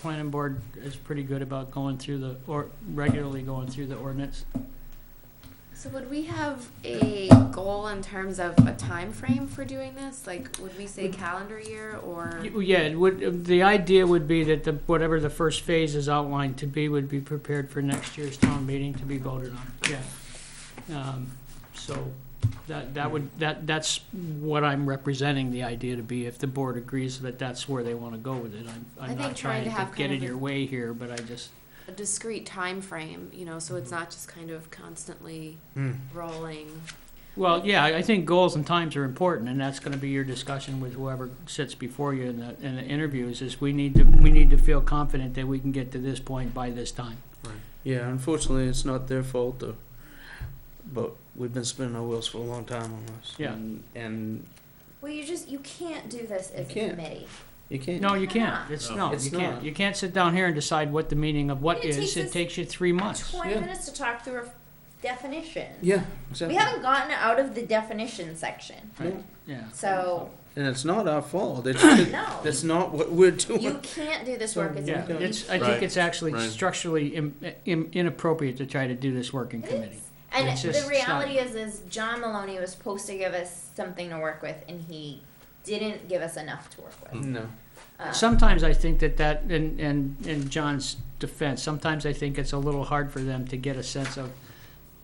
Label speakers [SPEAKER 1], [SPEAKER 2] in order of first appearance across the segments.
[SPEAKER 1] planning board is pretty good about going through the, or regularly going through the ordinance.
[SPEAKER 2] So would we have a goal in terms of a time frame for doing this? Like, would we say calendar year or?
[SPEAKER 1] Y- Yeah, it would, the idea would be that the, whatever the first phase is outlined to be would be prepared for next year's town meeting to be voted on, yeah. Um, So that, that would, that, that's what I'm representing the idea to be, if the board agrees that that's where they want to go with it. I'm,
[SPEAKER 2] I
[SPEAKER 1] I'm
[SPEAKER 2] think
[SPEAKER 1] not trying
[SPEAKER 2] trying to
[SPEAKER 1] to
[SPEAKER 2] have
[SPEAKER 1] get
[SPEAKER 2] kind
[SPEAKER 1] in
[SPEAKER 2] of a-
[SPEAKER 1] your way here, but I just,
[SPEAKER 2] a discrete time frame, you know, so it's not just kind of constantly
[SPEAKER 3] Hmm.
[SPEAKER 2] rolling.
[SPEAKER 1] well, yeah, I I think goals and times are important, and that's going to be your discussion with whoever sits before you in the, in the interviews, is we need to, we need to feel confident that we can get to this point by this time.
[SPEAKER 3] Yeah, unfortunately, it's not their fault, though. But we've been spinning our wheels for a long time on this.
[SPEAKER 1] Yeah.
[SPEAKER 3] And, and
[SPEAKER 4] Well, you just you can't do this as a
[SPEAKER 3] You can't.
[SPEAKER 4] committee.
[SPEAKER 3] you can't.
[SPEAKER 1] No, you can't. It's, no,
[SPEAKER 3] It's
[SPEAKER 1] you can't.
[SPEAKER 3] not.
[SPEAKER 1] You can't sit down here and decide what the meaning of what
[SPEAKER 4] It
[SPEAKER 1] is.
[SPEAKER 4] takes
[SPEAKER 1] It
[SPEAKER 4] us
[SPEAKER 1] takes you three months.
[SPEAKER 4] Twenty
[SPEAKER 3] Yeah.
[SPEAKER 4] minutes to talk through a definition.
[SPEAKER 3] Yeah,
[SPEAKER 4] We
[SPEAKER 3] exactly.
[SPEAKER 4] haven't gotten out of the definition section,
[SPEAKER 3] No,
[SPEAKER 1] Yeah.
[SPEAKER 4] so
[SPEAKER 3] And it's not our fault. It's just,
[SPEAKER 4] no,
[SPEAKER 3] that's not what we're doing.
[SPEAKER 4] you can't do this work as a
[SPEAKER 1] Yeah,
[SPEAKER 3] Yeah.
[SPEAKER 4] committee.
[SPEAKER 1] it's, I think
[SPEAKER 5] Right,
[SPEAKER 1] it's actually
[SPEAKER 5] right.
[SPEAKER 1] structurally im- im- inappropriate to try to do this working
[SPEAKER 4] It
[SPEAKER 1] committee.
[SPEAKER 4] is. And
[SPEAKER 1] It's just-
[SPEAKER 4] the
[SPEAKER 1] it's
[SPEAKER 4] reality is, is John Maloney was supposed to give us something to work with, and he didn't give us enough to work
[SPEAKER 1] Mm.
[SPEAKER 4] with.
[SPEAKER 3] no.
[SPEAKER 4] Um,
[SPEAKER 1] Sometimes I think that that, and, and, in John's defense, sometimes I think it's a little hard for them to get a sense of,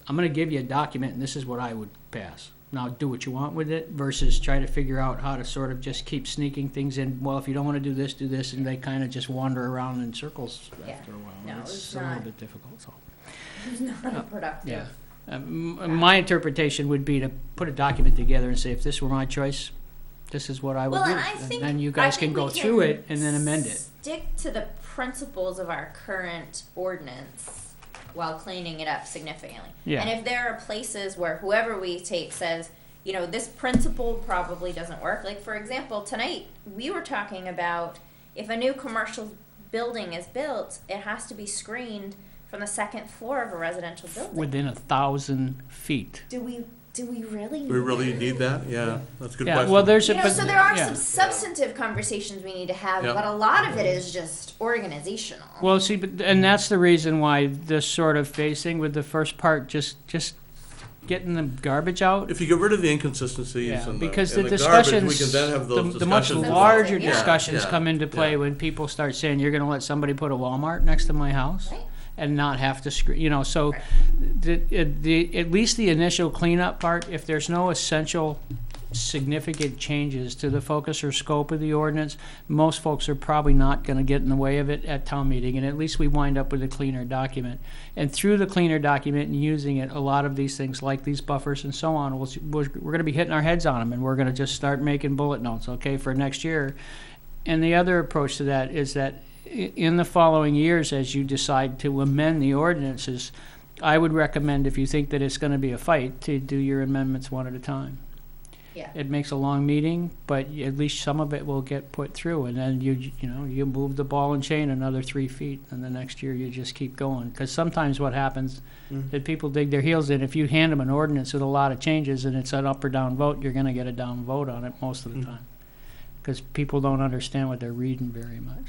[SPEAKER 1] I'm gonna give you a document and this is what I would pass. Now do what you want with it versus try to figure out how to sort of just keep sneaking things in. Well, if you don't wanna do this, do this, and they kinda just wander around in circles
[SPEAKER 4] Yeah.
[SPEAKER 1] after a while.
[SPEAKER 4] No,
[SPEAKER 1] It's
[SPEAKER 4] it's
[SPEAKER 1] a little
[SPEAKER 4] not-
[SPEAKER 1] bit difficult, so.
[SPEAKER 4] He's not a productive.
[SPEAKER 1] Yeah. Um, m- My interpretation would be to put a document together and say, if this were my choice, this is what I would
[SPEAKER 4] Well,
[SPEAKER 1] do.
[SPEAKER 4] and I
[SPEAKER 1] And
[SPEAKER 4] think
[SPEAKER 1] Then you
[SPEAKER 4] I
[SPEAKER 1] guys can
[SPEAKER 4] think we
[SPEAKER 1] go through it and then amend it.
[SPEAKER 4] Stick to the principles of our current ordinance while cleaning it up significantly.
[SPEAKER 1] Yeah.
[SPEAKER 4] And if there are places where whoever we take says, you know, this principle probably doesn't work. Like for example, tonight we were talking about if a new commercial building is built, it has to be screened from the second floor of a residential building.
[SPEAKER 1] Within a thousand feet.
[SPEAKER 4] do we do we really
[SPEAKER 5] Do we really need that? Yeah, that's a good
[SPEAKER 1] Yeah,
[SPEAKER 5] question.
[SPEAKER 1] well, there's a,
[SPEAKER 4] You know,
[SPEAKER 1] but,
[SPEAKER 4] so there are
[SPEAKER 1] yeah.
[SPEAKER 4] some substantive conversations we need to have,
[SPEAKER 5] Yeah.
[SPEAKER 4] but a lot of it is just organizational.
[SPEAKER 1] Well, see, but, and that's the reason why this sort of facing with the first part, just, just getting the garbage out.
[SPEAKER 5] If you get rid of the inconsistencies
[SPEAKER 1] Yeah,
[SPEAKER 5] and the,
[SPEAKER 1] because
[SPEAKER 5] and
[SPEAKER 1] the
[SPEAKER 5] the garbage, we
[SPEAKER 1] discussions-
[SPEAKER 5] can then have
[SPEAKER 1] The,
[SPEAKER 5] those
[SPEAKER 1] the much
[SPEAKER 5] discussions about-
[SPEAKER 1] larger
[SPEAKER 4] Yeah,
[SPEAKER 1] discussions
[SPEAKER 5] yeah,
[SPEAKER 1] come into play
[SPEAKER 5] yeah.
[SPEAKER 1] when people start saying, you're gonna let somebody put a Walmart next to my house?
[SPEAKER 4] Right.
[SPEAKER 1] And not have to screen, you know, so
[SPEAKER 4] Right.
[SPEAKER 1] the, it- the, at least the initial cleanup part, if there's no essential significant changes to the focus or scope of the ordinance, most folks are probably not gonna get in the way of it at town meeting, and at least we wind up with a cleaner document. And through the cleaner document and using it, a lot of these things, like these buffers and so on, we'll, we're we're gonna be hitting our heads on them, and we're gonna just start making bullet notes, okay, for next year. And the other approach to that is that i- in the following years, as you decide to amend the ordinances, I would recommend, if you think that it's gonna be a fight, to do your amendments one at a time.
[SPEAKER 4] Yeah.
[SPEAKER 1] It makes a long meeting, but y- at least some of it will get put through, and then you, you know, you move the ball and chain another three feet, and the next year you just keep going. Because sometimes what happens
[SPEAKER 3] Mm.
[SPEAKER 1] is people dig their heels in, if you hand them an ordinance with a lot of changes and it's an up or down vote, you're gonna get a down vote on it most of the
[SPEAKER 3] Mm.
[SPEAKER 1] time. Because people don't understand what they're reading very much.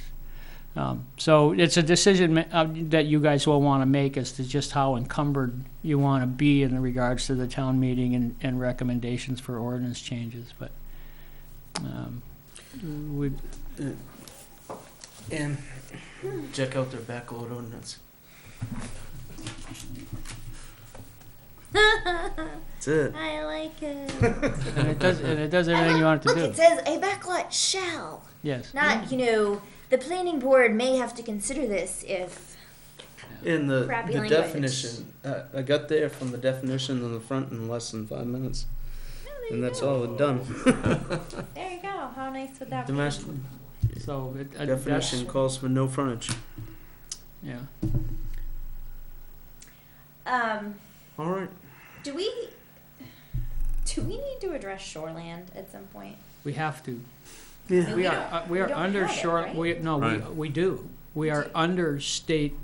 [SPEAKER 1] Um, so it's a decision ma- uh, that you guys will want to make as to just how encumbered you want to be in regards to the town meeting and, and recommendations for ordinance changes, but, um, we,
[SPEAKER 3] And check out their backlot ordinance. That's it.
[SPEAKER 4] I like it.
[SPEAKER 1] and it does, and it does everything you want it
[SPEAKER 4] Look,
[SPEAKER 1] to
[SPEAKER 4] it
[SPEAKER 1] do,
[SPEAKER 4] says a backlot shall,
[SPEAKER 1] yes.
[SPEAKER 4] not you know. The planning board may have to consider this if
[SPEAKER 3] And the,
[SPEAKER 4] Crappy
[SPEAKER 3] the
[SPEAKER 4] language.
[SPEAKER 3] definition, uh, I got there from the definition on the front in less than five minutes. And that's all we've done.
[SPEAKER 4] There you go. How nice would that
[SPEAKER 3] Dimash,
[SPEAKER 1] So it, uh, that's,
[SPEAKER 3] definition calls for no frontage.
[SPEAKER 1] yeah.
[SPEAKER 4] be? Um,
[SPEAKER 3] All right.
[SPEAKER 4] do we do we need to address shoreland at some point?
[SPEAKER 1] We have to.
[SPEAKER 3] Yeah.
[SPEAKER 1] We
[SPEAKER 4] We
[SPEAKER 1] are,
[SPEAKER 4] don't-
[SPEAKER 1] uh, we
[SPEAKER 4] we
[SPEAKER 1] are
[SPEAKER 4] don't
[SPEAKER 1] under
[SPEAKER 4] have it,
[SPEAKER 1] shore,
[SPEAKER 4] right?
[SPEAKER 1] we, no, we,
[SPEAKER 5] Right.
[SPEAKER 1] we do. We
[SPEAKER 4] We
[SPEAKER 1] are
[SPEAKER 4] do.
[SPEAKER 1] under state,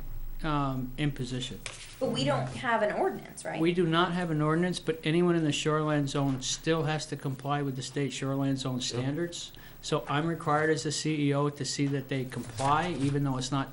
[SPEAKER 1] um, imposition.
[SPEAKER 4] But we don't have an ordinance, right?
[SPEAKER 1] We do not have an ordinance, but anyone in the shoreline zone still has to comply with the state shoreline zone standards. E So I'm required as the CEO to see that they comply, even though it's not